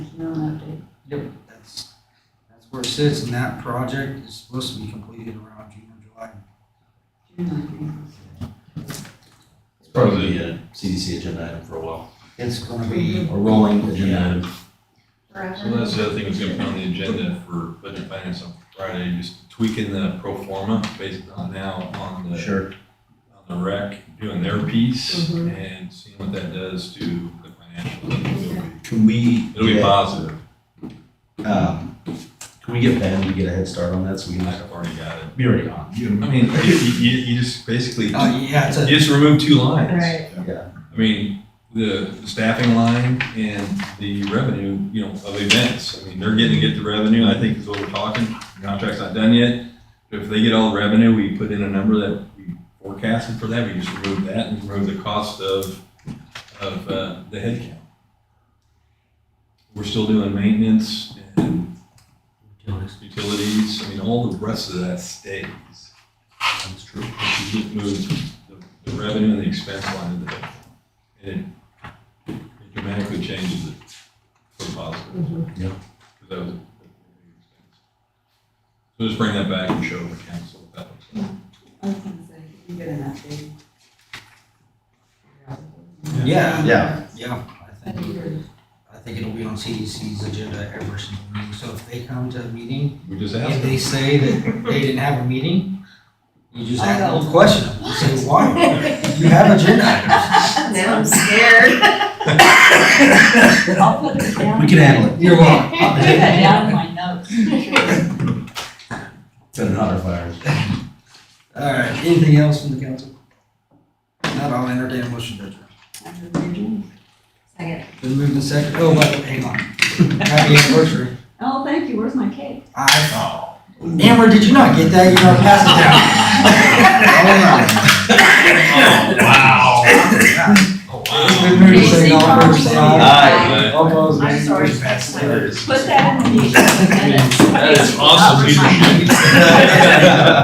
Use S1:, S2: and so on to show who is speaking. S1: Yep.
S2: That's, that's where it sits, and that project is supposed to be completed around June or July.
S3: It's probably a CDC agenda item for a while,
S2: It's gonna be,
S3: a rolling agenda item.
S4: So that's the other thing that's gonna be on the agenda for budget finance on Friday, just tweaking the pro forma based on now on the,
S3: Sure.
S4: on the rec, doing their piece
S5: Mhm.
S4: and seeing what that does to the financials.
S3: Can we?
S4: It'll be
S3: get,
S4: positive.
S3: um, Can we get Ben to get a head start on that so we can?
S4: I've already got it.
S3: Be already on.
S4: I mean, you, you, you just basically, you
S2: uh, yeah, it's a,
S4: just remove two lines.
S5: Right.
S4: I mean, the staffing line and the revenue, you know, of events. I mean, they're getting to get the revenue, I think is what we're talking. Contract's not done yet. If they get all the revenue, we put in a number that we forecasted for that, we just remove that and remove the cost of, of, uh, the headcount. We're still doing maintenance and utilities. I mean, all the rest of that stays.
S3: That's true.
S4: You just move the- the revenue and the expense line of the budget. And it dramatically changes it for the positive.
S5: Mhm.
S3: Yeah.
S4: Because that was. a- So just bring that back and show the council what that looks like.
S6: I was gonna say, you get an update.
S2: yeah,
S3: Yeah.
S2: yeah, I think, I think it'll be on CDC's agenda every single meeting, so if they come to a meeting,
S4: We just
S2: if
S4: asked.
S2: they say that they didn't have a meeting, you just
S6: I
S2: ask a
S6: know.
S2: little question, you say, why? You have agenda items.
S5: Now I'm scared.
S6: I'll put it down.
S3: We can handle it.
S2: You're welcome.
S6: I'll put that down in my notes.
S3: Set an honor fire.
S2: All right, anything else from the council? Not, I'll entertain a motion to adjourn.
S5: Second.
S2: Been moved and seconded, oh, wait, hang on. Happy anniversary.
S6: Oh, thank you, where's my cake?
S2: I,
S4: Oh,
S2: Amber, did you not get that? You gotta pass it down.
S4: wow. Oh,
S2: Been
S4: wow.
S2: moved and seconded, all in favor, say aye.
S4: Aye.
S2: All opposed,
S5: I'm
S2: nay.
S5: sorry.
S2: Motion passes.
S4: That is-
S6: Put that in the.
S4: that is awesome leadership.